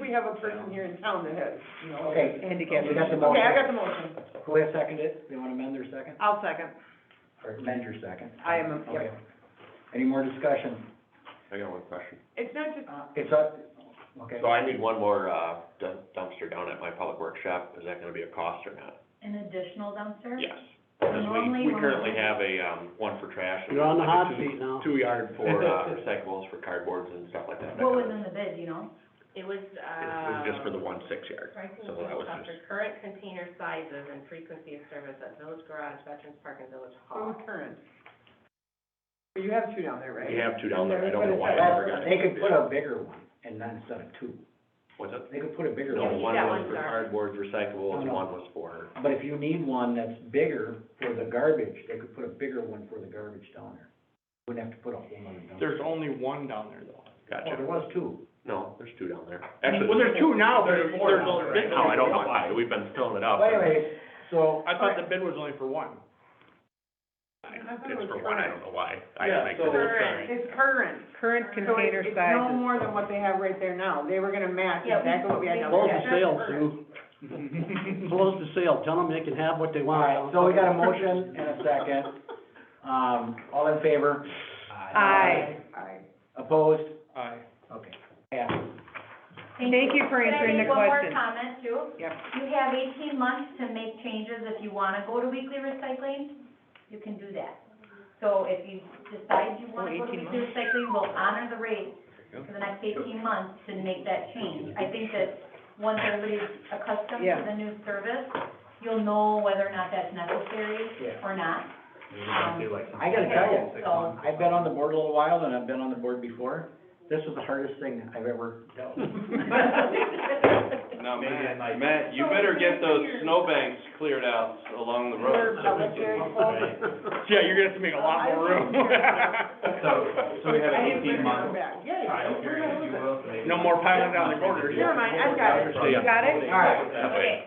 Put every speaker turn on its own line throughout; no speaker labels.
we have a person here in town that has, you know.
Okay.
Handicap.
You got the
Okay, I
motion.
got the motion.
Who has seconded? You wanna amend their second?
I'll second.
Or amend your second?
I am,
Okay.
yep.
Any more discussion?
I got one question.
It's not just,
It's up, okay.
So I need one more uh, dum- dumpster down at my public workshop. Is that gonna be a cost or not?
An additional dumpster?
Yes. Because we,
Normally
we
when-
currently have a, um, one for trash. and
You're on the
like a
hot
two-
seat now.
Two yard for, uh, recyclables for cardboards and stuff like that.
What was in the bid, you know?
It was,
It
uh.
was just for the one six yard.
Pricing
so that was
based off their current container sizes and frequency of service at Village Garage, Veterans Park, and Village
oh,
Hall.
current. You have two down there, right?
We have two down there. I don't know why I never got
That-
it.
They could put a bigger one and then instead of two.
What's it?
They could put a bigger
No,
Yeah,
one.
we
one
got
was
one
for
sorry.
cardboards, recyclables,
No, no.
one was for,
But if you need one that's bigger for the garbage, they could put a bigger one for the garbage down there. Wouldn't have to put a whole other dumpster.
There's only one down there though.
Oh, there
gotcha.
was two.
No, there's two down there.
Well,
Actually,
there's two now, but there's,
There's more
there's
now,
only.
right?
no, I don't know why. We've been filling it up.
But anyways, so,
Oh, I thought the bid was only for one.
I
It's
thought it was
for one, I
current.
don't know why. I
Yeah,
like
so-
it.
Current,
It's current.
Current
So it-
container
it's no
sizes.
more than what they have right there now. They were gonna match
Yeah, we-
exactly what we had down there.
Close the
sale, Sue. Close the sale, tell them they can have what they
all
want.
right, so we got a motion and a second. Um, all in favor?
Aye.
Aye.
Opposed?
Aye.
Okay. Passes.
Thank you for answering
Could I
the question.
make one more comment too?
Yep.
You have eighteen months to make changes. If you wanna go to weekly recycling, you can do that. So if you decide you wanna go to
18
weekly recycling, we'll honor the rate for the next eighteen months to make that change. I think that once everybody's accustomed
Yeah.
to the new service, you'll know whether or not that's necessary
Yeah.
or not.
I gotta tell you, I've been on the board a little while, and I've been on the board before. This is the hardest thing I've ever dealt with.
Now, Matt, Matt, you better get those snowbanks cleared out along the road.
That was very close.
Yeah, you're gonna have to make a lot more room.
So, so we have
I didn't bring
eighteen
it
months.
back. Yeah, yeah.
trial
We're
period,
gonna
if
lose
you
it.
will, so maybe-
No more piling down the corner.
Never mind, I've got it.
See ya.
You got it?
All
right.
Okay.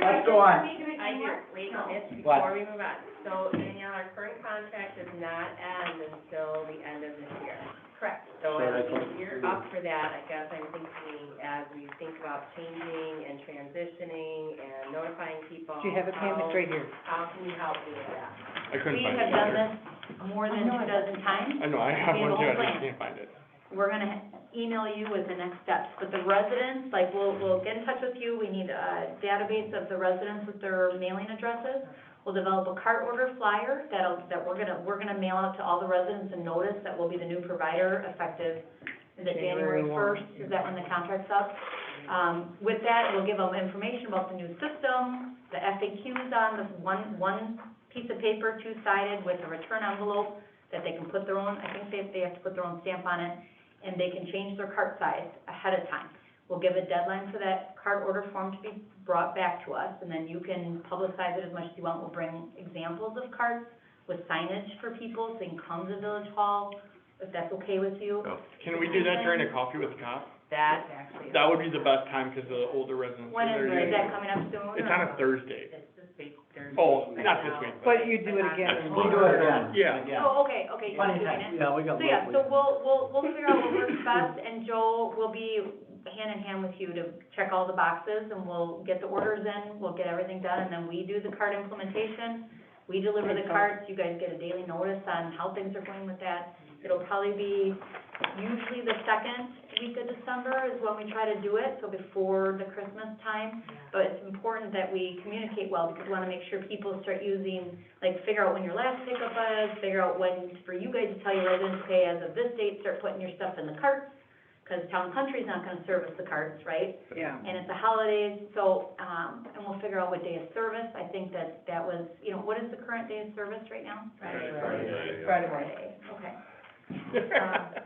Let's go on.
I hear, wait, it's
What?
before we move on. So Danielle, our current contract does not end until the end of this year.
Correct.
So
So
as
that's what
we gear up for that, I guess I'm thinking, as we think about changing and transitioning and notifying people.
Do you have it, Pam? It's right here.
How how can you help me with that?
I couldn't
We
find it
have done
either.
this more than two dozen times.
I know, I have
We
one
have a
too,
whole
I just
plan.
can't find it.
We're gonna email you with the next steps, but the residents, like, we'll, we'll get in touch with you. We need a database of the residents with their mailing addresses. We'll develop a cart order flyer that'll, that we're gonna, we're gonna mail out to all the residents and notice that we'll be the new provider effective, is it
January
January
one.
first? Is that when the contract's up? Um, with that, we'll give them information about the new system, the FAQs on the one, one piece of paper, two-sided with a return envelope that they can put their own, I think they, they have to put their own stamp on it, and they can change their cart size ahead of time. We'll give a deadline for that cart order form to be brought back to us, and then you can publicize it as much as you want. We'll bring examples of carts with signage for people, so you can come to Village Hall, if that's okay with you.
Can we do that during a coffee with the cop?
That's actually.
That would be the best time, cause the older residents.
When is,
they're
is
usually-
that coming up soon?
It's
or-
on a Thursday.
It's this week, Thursday.
Oh, not this week, but,
But you do it again.
We'll do it again.
yeah.
Yeah.
Oh, okay, okay, you're
Funny
doing
time.
it.
Yeah, we got.
So, yeah, so we'll, we'll, we'll figure out what works best, and Joel will be hand in hand with you to check all the boxes, and we'll get the orders in, we'll get everything done, and then we do the card implementation. We deliver the cards, you guys get a daily notice on how things are going with that. It'll probably be usually the second week of December is when we try to do it, so before the Christmas time. But it's important that we communicate well, because we wanna make sure people start using like figure out when your last pickup is, figure out when, for you guys to tell your residents, hey, as of this date, start putting your stuff in the carts, because Town Country's not gonna service the carts, right?
Yeah.
And it's the holidays, so, um, and we'll figure out what day of service, I think that, that was, you know, what is the current day of service right now?
Friday morning.
Friday, okay. Um,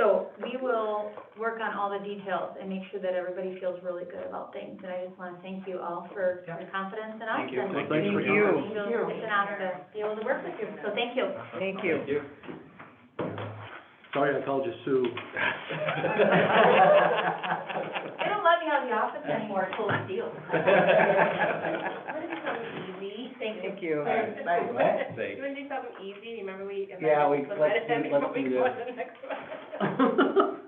So, we will work on all the details and make sure that everybody feels really good about things, and I just wanna thank you all for your confidence in us.
Thank you.
and-
Thank
Thanks for
Thank
coming.
you.
it's an honor to be able to work with you, so thank you.
Thank you.
Sorry, I called you Sue.
They don't let me out of the office anymore, full of deal.
Wanna do something easy? Thank you.
Thank you.
What?
You wanna do something easy? Remember we.
Yeah, we-
amended
let's do-
the
let's
medicine,
do
we go
this.
to the next one.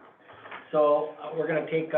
So, uh, we're gonna take